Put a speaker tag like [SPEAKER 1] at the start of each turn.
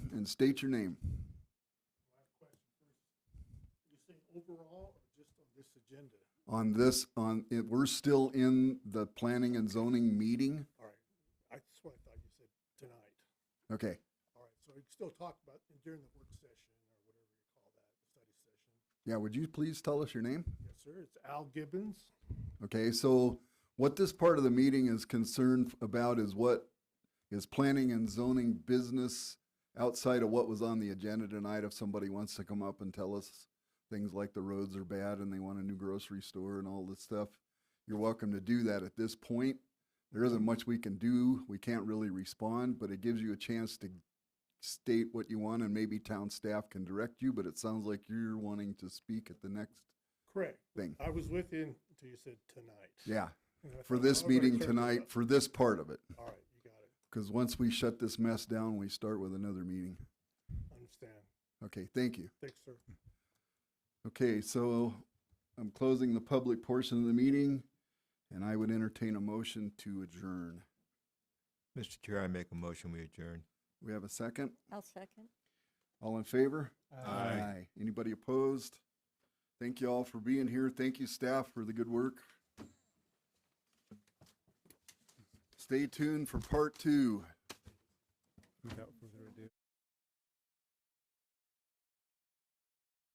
[SPEAKER 1] and state your name.
[SPEAKER 2] You saying overall or just on this agenda?
[SPEAKER 1] On this, on, it- we're still in the planning and zoning meeting.
[SPEAKER 2] All right, I- that's what I thought you said tonight.
[SPEAKER 1] Okay,
[SPEAKER 2] All right, so we can still talk about it during the work session or whatever you call that, the study session.
[SPEAKER 1] yeah, would you please tell us your name?
[SPEAKER 2] Yes, sir, it's Al Gibbons.
[SPEAKER 1] Okay, so what this part of the meeting is concerned about is what is planning and zoning business outside of what was on the agenda tonight. If somebody wants to come up and tell us things like the roads are bad and they want a new grocery store and all this stuff, you're welcome to do that at this point. There isn't much we can do. We can't really respond, but it gives you a chance to state what you want and maybe town staff can direct you, but it sounds like you're wanting to speak at the next
[SPEAKER 2] Correct.
[SPEAKER 1] thing.
[SPEAKER 2] I was with him until you said tonight.
[SPEAKER 1] Yeah.
[SPEAKER 2] And I
[SPEAKER 1] for
[SPEAKER 2] thought, "Oh,
[SPEAKER 1] this
[SPEAKER 2] "All right,
[SPEAKER 1] meeting
[SPEAKER 2] sir,
[SPEAKER 1] tonight, for this part of it.
[SPEAKER 2] All right, you got it,
[SPEAKER 1] Because once we shut this mess down, we start with another meeting.
[SPEAKER 2] understand.
[SPEAKER 1] Okay, thank you.
[SPEAKER 2] Thanks, sir.
[SPEAKER 1] Okay, so I'm closing the public portion of the meeting, and I would entertain a motion to adjourn.
[SPEAKER 3] Mr. Chair, I make a motion, we adjourn.
[SPEAKER 1] We have a second?
[SPEAKER 4] I'll second.
[SPEAKER 1] All in favor?
[SPEAKER 3] Aye.
[SPEAKER 1] Anybody opposed? Thank you all for being here. Thank you, staff, for the good work. Stay tuned for part two.